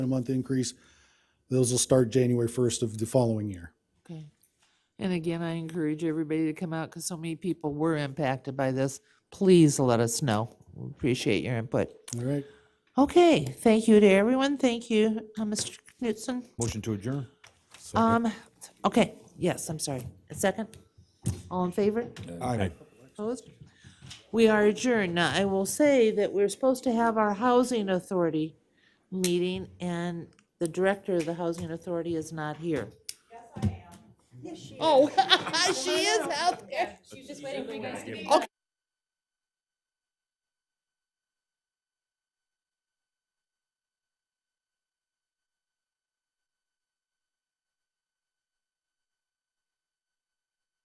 a month increase. Those will start January first of the following year. Okay. And again, I encourage everybody to come out because so many people were impacted by this. Please let us know. We Appreciate your input. All right? Okay, thank you to everyone. Thank you, uh, Mr. Knutson. Motion to adjourn. Um, okay, yes, I'm sorry. A second? All in favor? Aye. Opposed? We are adjourned. Now, I will say that we're supposed to have our Housing Authority meeting, and the Director of the Housing Authority is not here. Yes, I am. Yes, she is. Oh, she is out there. She was just waiting for you guys to be.